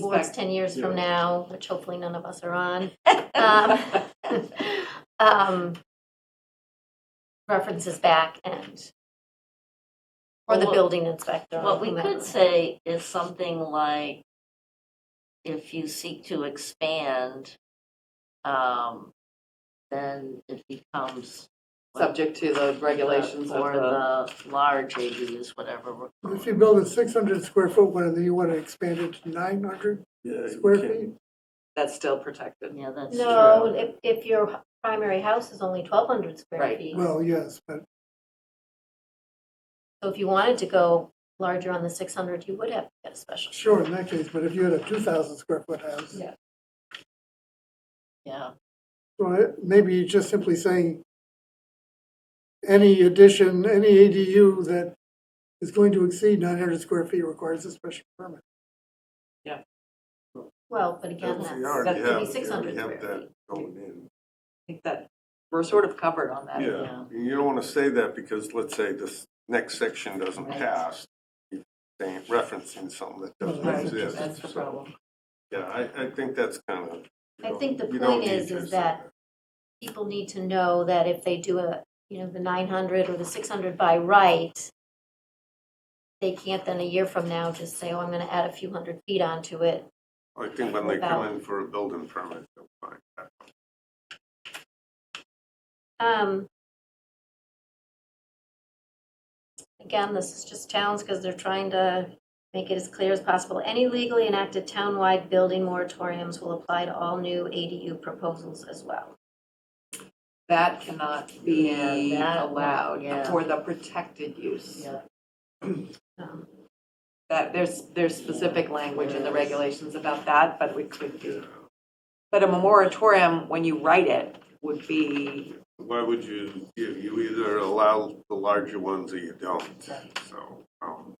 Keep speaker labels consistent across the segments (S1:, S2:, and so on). S1: boards 10 years from
S2: Yeah.
S1: now, which hopefully none of us are on. um, um, References back and, or the
S3: Well,
S1: building inspector. or
S3: What we
S1: whomever.
S3: could say is something like, if you seek to expand, um, then it becomes. what-
S4: subject to the regulations of
S3: Or
S4: the,
S3: the large ADUs, whatever. we're
S5: If you build a six hundred square foot one and then you want to expand it to nine hundred
S2: Yeah, you
S5: square
S2: can't-
S5: feet,
S4: that's still protected.
S3: Yeah, that's
S1: No, if, if your primary house is only 1,200 square
S4: Right.
S1: feet.
S5: well, yes, but
S1: So if you wanted to go larger on the 600, you would have to get a special.
S5: sure, in that case, but if you had a two thousand square foot house,
S1: Yeah.
S3: yeah.
S5: well, it- maybe you just simply saying any addition, any ADU that is going to exceed nine hundred square feet requires a special permit.
S1: Well, but again,
S2: Yeah,
S1: that's,
S2: we already
S1: that could be
S2: have-
S1: 600
S2: We
S1: square
S2: have
S1: feet.
S2: that going in.
S4: I think that, we're sort of covered on that.
S2: Yeah,
S3: Yeah.
S2: and you don't want to say that because let's say this next section doesn't
S3: Right.
S2: pass. You're saying- Referencing something that doesn't
S5: Right,
S2: exist.
S3: That's the
S2: So,
S3: problem.
S2: Yeah, I, I think that's kind of. you
S1: I
S2: don't-
S1: think the
S2: you don't
S1: point
S2: need
S1: is-
S2: to
S1: is
S2: say
S1: that People need to know that if they do a, you know, the 900 or the 600 by right, they can't then a year from now just say, oh, I'm going to add a few hundred feet onto it.
S2: I think when they come
S1: About-
S2: in for a building permit, they'll find that.
S1: Um, Again, this is just towns because they're trying to make it as clear as possible. Any legally enacted townwide building moratoriums will apply to all new ADU proposals as well.
S4: That cannot be
S3: Yeah, that-
S4: allowed
S3: yeah.
S4: for the protected use.
S3: Yeah.
S1: Um,
S4: That, there's, there's specific language in the regulations about that, but we could be.
S2: Yeah.
S4: But a moratorium, when you write it, would be,
S2: Why would you, you you either allow the larger ones or you don't, so. um,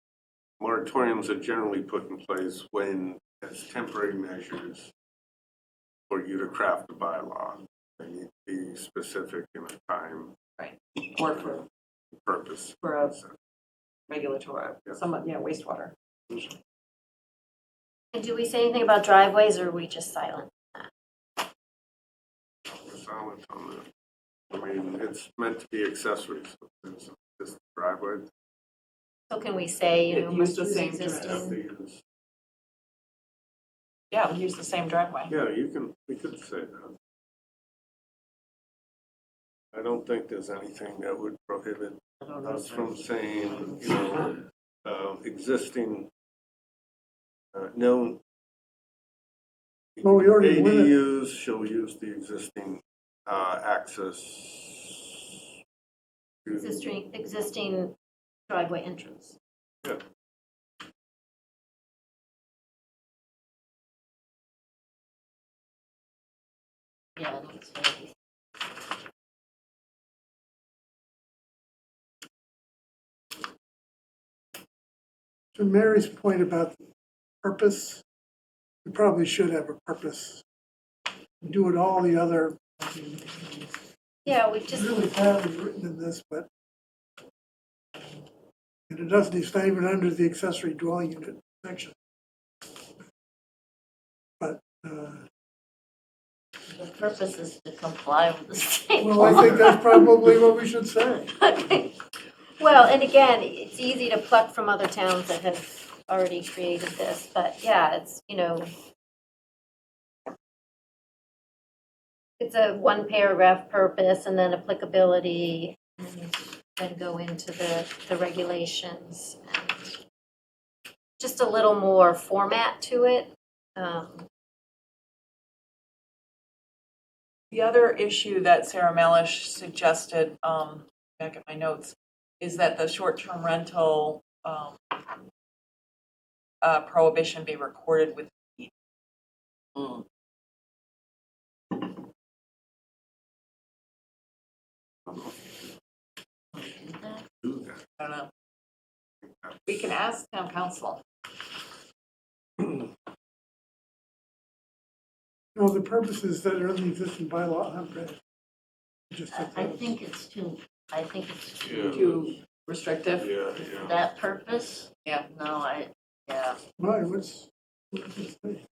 S2: Moratoriums are generally put in place when, as temporary measures for you to craft a bylaw. They need to be specific in a time
S4: or for,
S2: purpose.
S4: for a regulatory,
S2: Yeah.
S4: somewhat, yeah, wastewater.
S1: And do we say anything about driveways or are we just silent?
S2: We're silent on that. I mean, it's meant to be accessories, but there's this driveway.
S1: So can we say, you
S4: It
S1: know,
S4: used
S1: must
S4: the
S1: use
S4: same
S2: have
S1: existing?
S2: to use-
S4: Yeah, we use the same driveway.
S2: Yeah, you can, we could say that. I don't think there's anything that would prohibit
S3: I don't know.
S2: us from saying, you know, uh, existing, uh, known
S5: Well, we already went-
S2: ADUs shall use the existing uh, access. to-
S1: Existing, existing driveway entrance.
S3: Yeah, that's fair.
S5: To Mary's point about purpose, we probably should have a purpose. Do it all the other,
S1: Yeah, we
S5: it's
S1: just,
S5: really badly written in this, but and it doesn't, it's not even under the accessory dwelling unit section. But, uh,
S3: The purpose is to comply with the state.
S5: well, I think that's probably what we should say.
S1: well, and again, it's easy to pluck from other towns that have already created this, but yeah, it's, you know, it's a one paragraph purpose and then applicability and then go into the, the regulations. and Just a little more format to it. Um,
S4: The other issue that Sarah Melish suggested, um, back at my notes, is that the short-term rental, um, uh, prohibition be recorded with deed.
S3: Mm. Do that?
S2: Do that.
S4: I don't know. uh, We can ask town council.
S5: No, the purposes that are in the existing bylaw aren't read. Just
S3: I-
S5: that
S3: I
S5: those-
S3: think it's too, I think it's
S4: Too restrictive?
S2: Yeah, yeah.
S3: that purpose.
S4: Yeah.
S3: No, I, yeah,
S5: Right, what's, What does it say?